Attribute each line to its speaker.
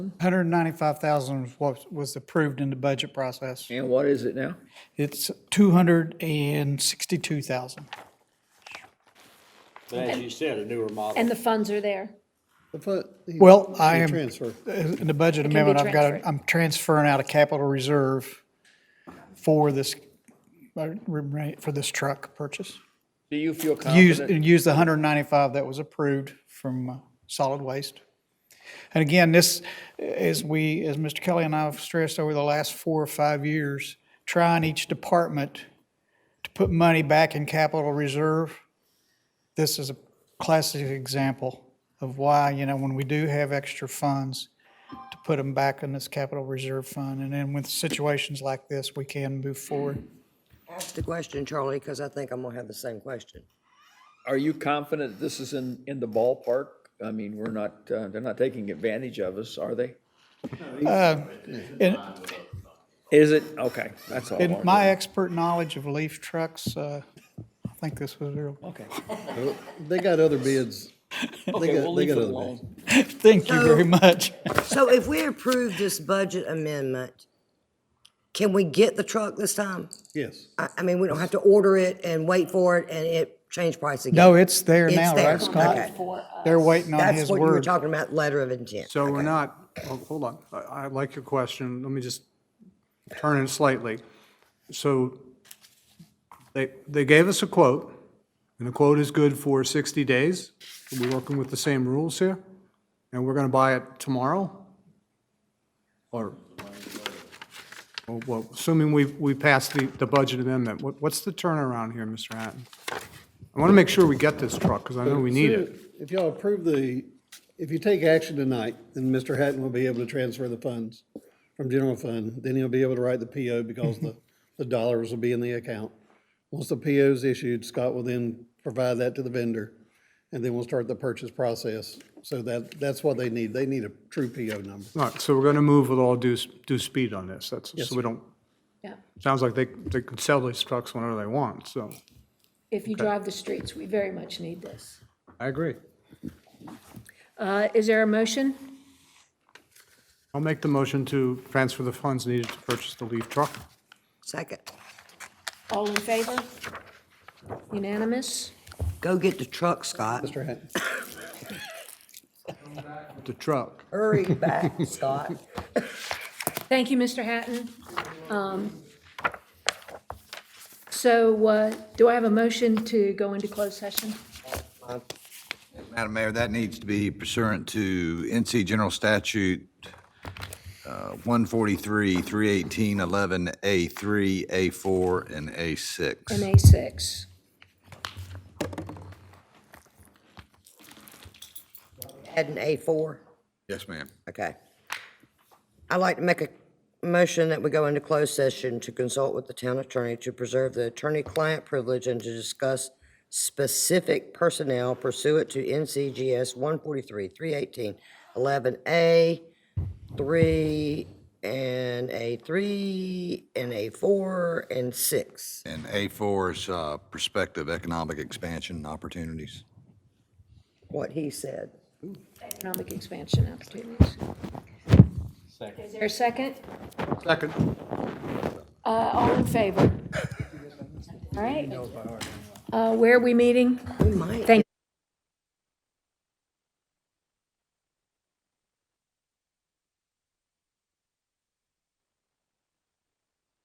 Speaker 1: 195,000 was what was approved in the budget process.
Speaker 2: And what is it now?
Speaker 1: It's 262,000.
Speaker 3: But as you said, a newer model.
Speaker 4: And the funds are there.
Speaker 5: The fu- the-
Speaker 1: Well, I
Speaker 5: the
Speaker 1: am- uh,
Speaker 5: Transfer.
Speaker 1: In the budget
Speaker 4: can be
Speaker 1: amendment, I've got,
Speaker 4: transferred.
Speaker 1: a- I'm transferring out of capital reserve for this, uh, for this truck purchase.
Speaker 2: Do you feel
Speaker 1: Use,
Speaker 2: confident?
Speaker 1: and use the 195 that was approved from uh, solid waste. And again, this, as we, as Mr. Kelly and I have stressed over the last four or five years, trying each department to put money back in capital reserve, this is a classic example of why, you know, when we do have extra funds, to put them back in this capital reserve fund. And then with situations like this, we can move forward.
Speaker 6: Ask the question, Charlie, because I think I'm gonna have the same question.
Speaker 2: Are you confident this is in, in the ballpark? I mean, we're not, uh, they're not taking advantage of us, are they?
Speaker 1: And
Speaker 2: Is it? Okay, that's all. I
Speaker 1: In
Speaker 2: wanted to
Speaker 1: my
Speaker 2: know.
Speaker 1: expert knowledge of leaf trucks, uh, I think this was real.
Speaker 2: Okay.
Speaker 5: They got other bids. They
Speaker 2: Okay, we'll
Speaker 5: got, they
Speaker 2: leave it
Speaker 5: got other
Speaker 2: alone.
Speaker 5: bids.
Speaker 1: Thank you very
Speaker 6: So-
Speaker 1: much.
Speaker 6: So if we approve this budget amendment, can we get the truck this time?
Speaker 5: Yes.
Speaker 6: I, I mean, we don't have to order it and wait for it and it change price again.
Speaker 1: No, it's there
Speaker 6: It's
Speaker 1: now,
Speaker 6: there.
Speaker 1: right, Scott?
Speaker 6: Okay.
Speaker 1: They're waiting on
Speaker 6: That's
Speaker 1: his
Speaker 6: what you were
Speaker 1: word.
Speaker 6: talking about, letter of intent.
Speaker 7: So we're not, oh, hold on, I I like your question, let me just turn it slightly. So they, they gave us a quote, and the quote is good for 60 days. We're working with the same rules here, and we're going to buy it tomorrow? Or, well, well, assuming we, we pass the, the budget amendment, what, what's the turnaround here, Mr. Hatton? I want to make sure we get this truck, because I know we need it.
Speaker 5: If y'all approve the, if you take action tonight, then Mr. Hatton will be able to transfer the funds from general fund. Then he'll be able to write the PO because the, the dollars will be in the account. Once the PO is issued, Scott will then provide that to the vendor, and then we'll start the purchase process. So that, that's what they need. They need a true PO number.
Speaker 7: All right, so we're going to move with all due, s- due speed on this. That's, so we don't,
Speaker 4: Yeah.
Speaker 7: sounds like they, they could sell these trucks whenever they want, so.
Speaker 4: If you drive the streets, we very much need this.
Speaker 7: I agree.
Speaker 4: Uh, Is there a motion?
Speaker 7: I'll make the motion to transfer the funds needed to purchase the leaf truck.
Speaker 6: Second,
Speaker 4: All in favor? Unanimous?
Speaker 6: go get the truck, Scott.
Speaker 5: Mr. Hatton?
Speaker 7: The truck.
Speaker 6: Hurry back, Scott.
Speaker 4: Thank you, Mr. Hatton. Um, So uh, do I have a motion to go into closed session?
Speaker 8: Madam Mayor, that needs to be pursuant to NC General Statute uh, 143, 318, 11A3, A4, and A6.
Speaker 4: And A6.
Speaker 6: Add an A4,
Speaker 8: Yes, ma'am.
Speaker 6: okay. I'd like to make a motion that we go into closed session to consult with the town attorney to preserve the attorney-client privilege and to discuss specific personnel pursuant to NCGS 143, 318, 11A, 3, and A3, and A4, and 6.
Speaker 8: And A4 is uh, prospective economic expansion opportunities.
Speaker 6: What he said.
Speaker 4: economic expansion opportunities. Is there a second?
Speaker 7: Second.
Speaker 4: Uh, All in favor? All right. Uh, Where are we meeting?
Speaker 6: We might.
Speaker 4: Thank